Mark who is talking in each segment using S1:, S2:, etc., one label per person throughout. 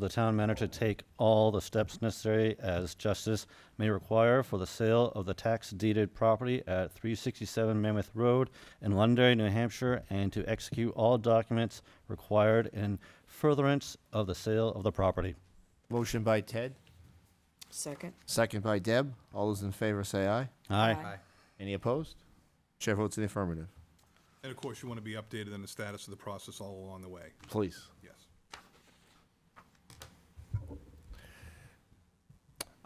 S1: the town manager to take all the steps necessary as justice may require for the sale of the tax deeded property at 367 Mammoth Road in Londonderry, New Hampshire, and to execute all documents required in furtherance of the sale of the property.
S2: Motion by Ted,
S3: Second.
S2: second by Deb. All those in favor say aye.
S1: Aye.
S3: Aye.
S2: Any opposed? Chair votes in the affirmative.
S4: And of course, you want to be updated on the status of the process all along the way,
S2: Please.
S4: yes.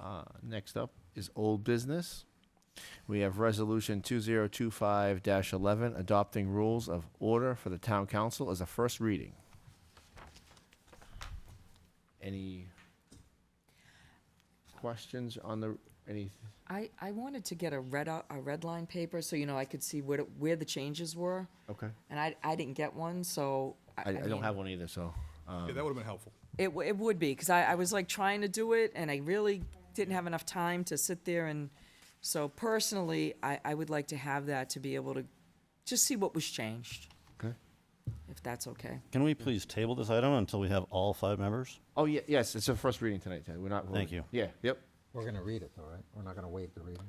S2: Uh, Next up is old business. We have Resolution 2025-11, adopting rules of order for the town council as a first reading. Any questions on the, any,
S3: I, I wanted to get a red, out- a red line paper, so you know, I could see where, to- where the changes were,
S2: okay.
S3: and I, I didn't get one, so.
S2: I I
S3: mean,
S2: don't have one either, so. uh,
S4: Yeah, that would have been helpful.
S3: It, w- it would be, because I, I was like trying to do it, and I really didn't have enough time to sit there and, so personally, I, I would like to have that to be able to just see what was changed,
S2: Okay.
S3: if that's okay.
S1: Can we please table this item until we have all five members?
S2: Oh, ye- yes, it's a first reading tonight, Ted. We're not.
S1: Thank
S2: voting.
S1: you.
S2: Yeah, yep.
S5: We're gonna read it though, right? We're not gonna waive the reading.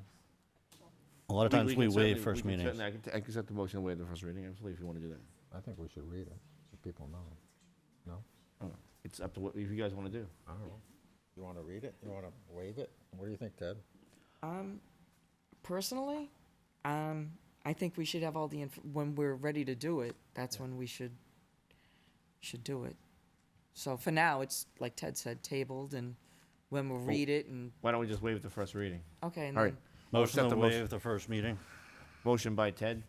S1: A lot of times we
S2: can certainly-
S1: waive first
S2: can
S1: meetings.
S2: certainly- I can t- I can accept the motion to waive the first reading, absolutely, if you want to do that.
S5: I think we should read it, so people know. No?
S2: Oh, It's up to what you guys want to do.
S5: I don't know. You wanna read it? You wanna waive it? What do you think, Ted?
S3: Personally, um, I think we should have all the, inf- when we're ready to do it, that's when we should, should do it. So for now, it's, like Ted said, tabled, and when we'll read it, and,
S2: Why don't we just waive the first reading?
S3: okay, and
S2: All right.
S3: then,
S2: I'll
S1: Mm. Motion
S2: accept
S1: to
S2: the motion-
S1: waive the first meeting.
S2: Motion by Ted,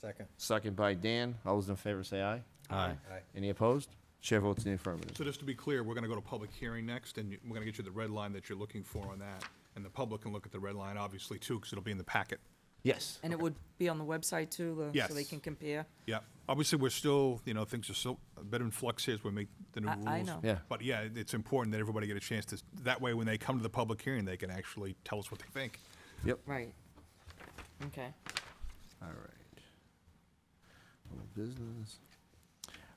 S5: Second.
S2: second by Dan. All those in favor say aye.
S1: Aye.
S2: Any opposed? Chair votes in the affirmative.
S4: So just to be clear, we're going to go to public hearing next, and you- we're going to get you the red line that you're looking for on that. And the public can look at the red line, obviously, too, because it'll be in the packet.
S2: Yes.
S3: and it would be on the website too, the- so they
S4: Yes.
S3: can compare.
S4: Yeah, obviously, we're still, you know, things are still a bit in flux here as we make the new
S3: I-
S4: rules.
S3: I know.
S2: Yeah.
S4: But yeah, it- it's important that everybody get a chance to, that way, when they come to the public hearing, they can actually tell us what they think.
S2: Yep.
S3: Right. Okay.
S2: All right. Old business.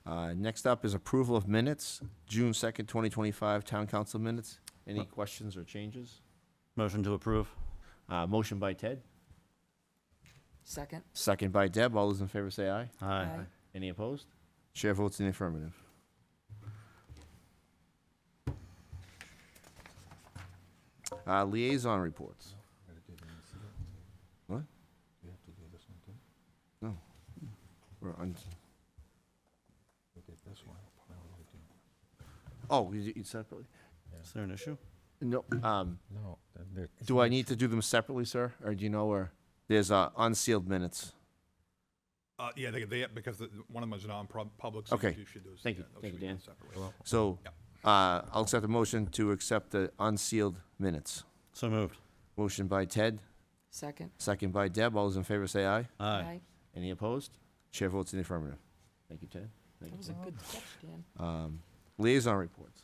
S2: Uh, next up is approval of minutes, June second, twenty twenty-five, town council minutes. Any questions or changes?
S1: Motion to approve.
S2: Uh, motion by Ted,
S3: Second?
S2: second by Deb. All those in favor say aye.
S1: Aye.
S3: Aye.
S2: Any opposed? Chair votes in the affirmative. Uh, liaison reports. What?
S5: You have to do this one too.
S2: We're on-
S5: We did this one. Now we do-
S2: Oh, you, you separately?
S1: Is there an issue?
S2: No, um,
S5: No. then there-
S2: do I need to do them separately, sir? Or do you know where? There's, uh, unsealed minutes.
S4: Uh, yeah, they, they, because the- one of them is non-public, so
S2: Okay.
S4: you should do those.
S2: Thank you.
S4: yeah, those
S2: Thank
S4: should
S2: you,
S4: be
S2: Dan.
S4: separate.
S2: So,
S4: Yep.
S2: uh, I'll accept the motion to accept the unsealed minutes.
S1: So moved.
S2: Motion by Ted,
S3: Second?
S2: second by Deb. All those in favor say aye.
S1: Aye.
S2: Any opposed? Chair votes in the affirmative. Thank you, Ted. Thank
S3: That
S2: you,
S3: was a
S2: Ted.
S3: good catch, Dan.
S2: Um, liaison reports.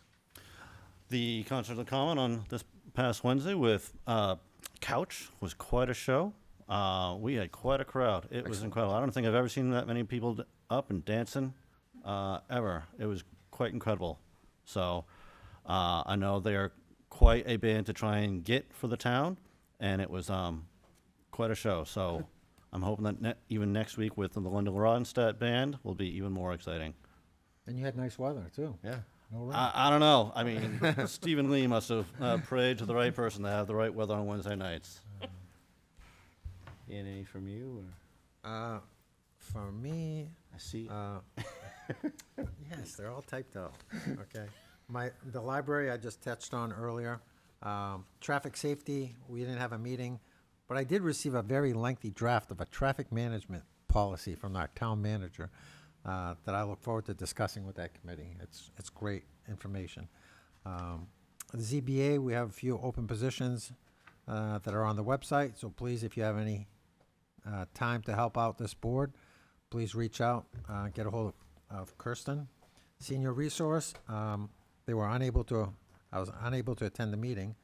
S1: The concert of the common on this past Wednesday with uh, Couch was quite a show. Uh, we had quite a crowd. It was incredible. I don't think I've ever seen that many people d- up and dancing uh, ever. It was quite incredible. So uh, I know they are quite a band to try and get for the town, and it was um, quite a show. So I'm hoping that ne- even next week with the Linda Ronstadt band will be even more exciting.
S5: And you had nice weather too.
S2: Yeah.
S5: No rain.
S1: I, I don't know. I mean, Stephen Lee must have uh, prayed to the right person to have the right weather on Wednesday nights.
S2: And any from you? Or?
S5: Uh, for me,
S2: I see.
S5: Uh, Yes, they're all typed out, okay. My, the library I just touched on earlier, um, traffic safety, we didn't have a meeting, but I did receive a very lengthy draft of a traffic management policy from our town manager uh, that I look forward to discussing with that committee. It's, it's great information. Um, The ZBA, we have a few open positions uh, that are on the website, so please, if you have any uh, time to help out this board, please reach out, uh, get a hold of Kirsten. Senior Resource, um, they were unable to, I was unable to attend the meeting,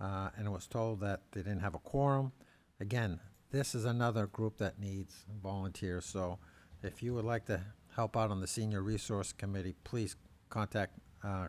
S5: uh, and was told that they didn't have a quorum. Again, this is another group that needs volunteers, so if you would like to help out on the Senior Resource Committee, please contact uh,